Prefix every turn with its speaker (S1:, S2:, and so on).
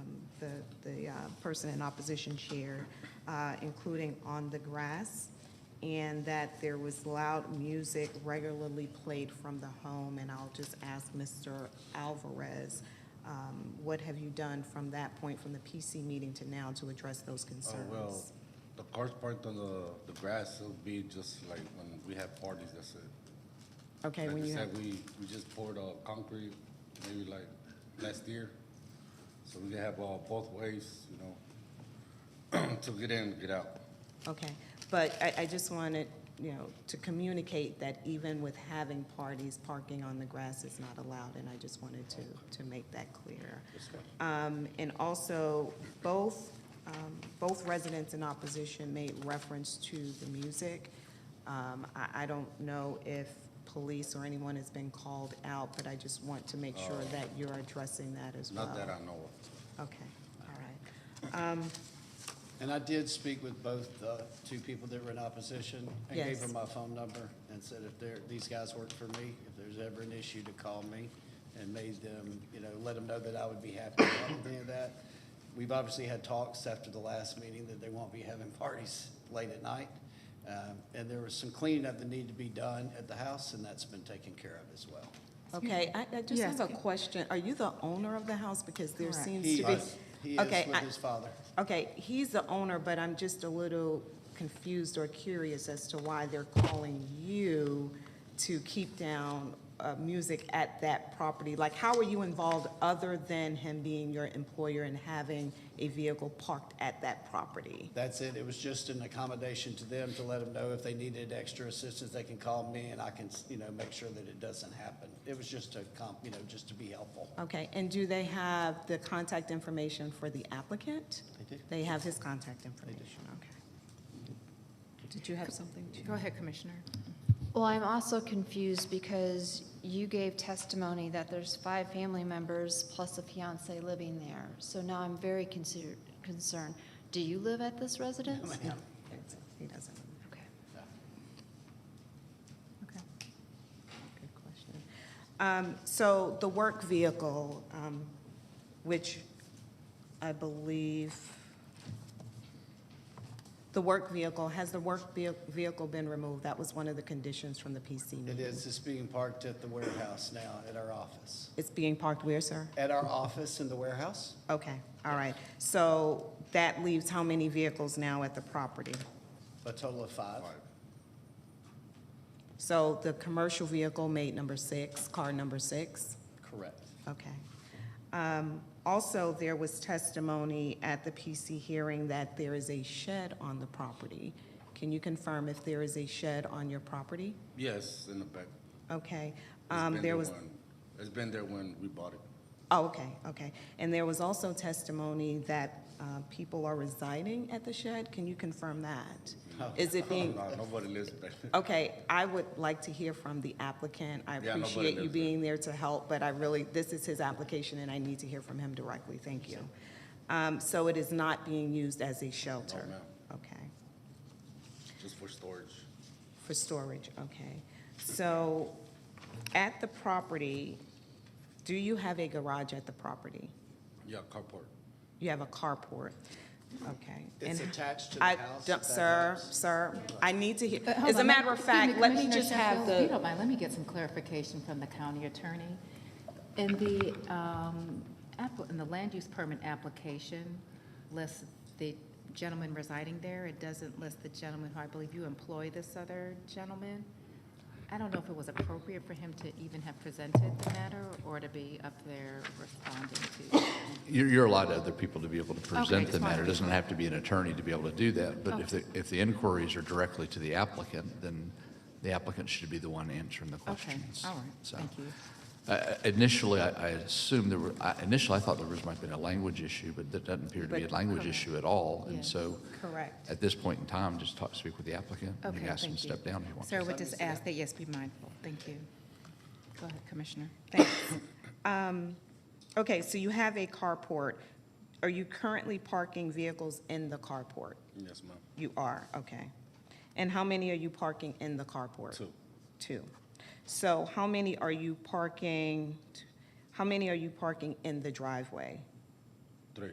S1: um, uh, person in opposition chair, uh, including on the grass, and that there was loud music regularly played from the home. And I'll just ask Mr. Alvarez, um, what have you done from that point, from the PC meeting to now, to address those
S2: Oh, well,
S1: concerns?
S2: the cars parked on the, the grass, it'll be just like when we have parties, that's it.
S1: Okay,
S2: Like
S1: when
S2: I
S1: you have,
S2: said, we, we just poured, uh, concrete, maybe like last year. So we can have, uh, both ways, you know, to get in, get out.
S1: okay. But I, I just wanted, you know, to communicate that even with having parties, parking on the grass is not allowed, and I just wanted to, to make that clear.
S2: That's fine.
S1: Um, And also, both, um, both residents in opposition made reference to the music. Um, I, I don't know if police or anyone has been called out, but I just want to make sure that you're addressing that as well.
S2: Oh. Not that I know of.
S1: Okay, all right.
S3: And I did speak with both the two people that were in opposition and gave
S1: Yes.
S3: them my phone number and said if they're, these guys work for me, if there's ever an issue, to call me and made them, you know, let them know that I would be happy to help with any of that. We've obviously had talks after the last meeting that they won't be having parties late at night. Um, And there was some cleaning up that needed to be done at the house, and that's been taken care of as well.
S1: Okay, I, I just
S4: Yes.
S1: have a question. Are you the owner of the house? Because there
S4: Correct.
S1: seems
S3: He
S1: to be.
S3: is, he is
S1: Okay,
S3: with
S1: I-
S3: his father.
S1: Okay, he's the owner, but I'm just a little confused or curious as to why they're calling you to keep down uh, music at that property. Like, how are you involved other than him being your employer and having a vehicle parked at that property?
S3: That's it. It was just an accommodation to them to let them know if they needed extra assistance, they can call me and I can, you know, make sure that it doesn't happen. It was just to comp, you know, just to be helpful.
S1: Okay, and do they have the contact information for the applicant?
S3: They do.
S1: They have his contact information, okay. Did you have something? to-
S4: Go ahead, Commissioner.
S5: Well, I'm also confused because you gave testimony that there's five family members plus a fiance living there. So now I'm very consider- concerned. Do you live at this residence?
S3: Ma'am.
S1: He doesn't.
S5: Okay.
S1: Okay. Good question. Um, So the work vehicle, um, which I believe, the work vehicle, has the work veh- vehicle been removed? That was one of the conditions from the PC meeting.
S3: It is, it's being parked at the warehouse now, at our office.
S1: It's being parked where, sir?
S3: At our office in the warehouse,
S1: Okay, all right. So that leaves how many vehicles now at the property?
S3: a total of five.
S1: So the commercial vehicle made number six, car number six?
S3: Correct.
S1: Okay. Um, Also, there was testimony at the PC hearing that there is a shed on the property. Can you confirm if there is a shed on your property?
S2: Yes, in the back.
S1: Okay.
S2: It's
S1: Um,
S2: been
S1: There was,
S2: when- It's been there when we bought it.
S1: oh, okay, okay. And there was also testimony that uh, people are residing at the shed. Can you confirm that?
S2: Oh.
S1: Is it being,
S2: No, Nobody lives there.
S1: Okay, I would like to hear from the applicant. I
S2: Yeah, nobody
S1: appreciate you
S2: lives
S1: being there to help, but I really, this is his application, and I need to hear from him directly. Thank you. Um, So it is not being used as a shelter?
S2: ma'am.
S1: Okay,
S2: just for storage.
S1: for storage, okay. So at the property, do you have a garage at the property?
S2: Yeah, carport.
S1: You have a carport, okay.
S3: It's
S1: And
S3: attached to the
S1: I
S3: house,
S1: don't-
S3: if that
S1: Sir,
S3: helps.
S1: sir, I need to hear,
S4: But hold
S1: as a
S4: on,
S1: matter of
S4: excuse me,
S1: fact, let me
S4: Commissioner
S1: just have
S4: Sheffield,
S1: the.
S4: If you don't mind, let me get some clarification from the county attorney. In the, um, app- in the land use permit application, lists the gentleman residing there. It doesn't list the gentleman who I believe you employ this other gentleman. I don't know if it was appropriate for him to even have presented the matter or to be up there responding
S6: You're, you're allowed to other people to be able to present
S4: just
S6: the matter.
S4: wanted
S6: It
S4: to-
S6: doesn't have to be an attorney to be able to do that. But if the, if the inquiries are directly to the applicant, then the applicant should be the one answering the
S4: to. Okay,
S6: questions.
S4: all right,
S6: So,
S4: thank you.
S6: I- I- Initially, I, I assumed there were, I- initially, I thought there was, might have been a language issue, but that doesn't appear to be a
S1: But-
S6: language
S4: correct.
S6: issue at all. And
S4: Yes.
S6: so
S1: Correct.
S6: at this point in time, just talk, speak with the applicant. and
S4: Okay,
S6: You ask them to
S4: thank you.
S6: step down if you want.
S4: Sir, I would just ask that, yes, be mindful. Thank you. Go ahead, Commissioner.
S1: Thanks. Um, Okay, so you have a carport. Are you currently parking vehicles in the carport?
S2: Yes, ma'am.
S1: You are, okay. And how many are you parking in the carport?
S2: Two.
S1: Two. So how many are you parking, how many are you parking in the driveway?
S2: Three.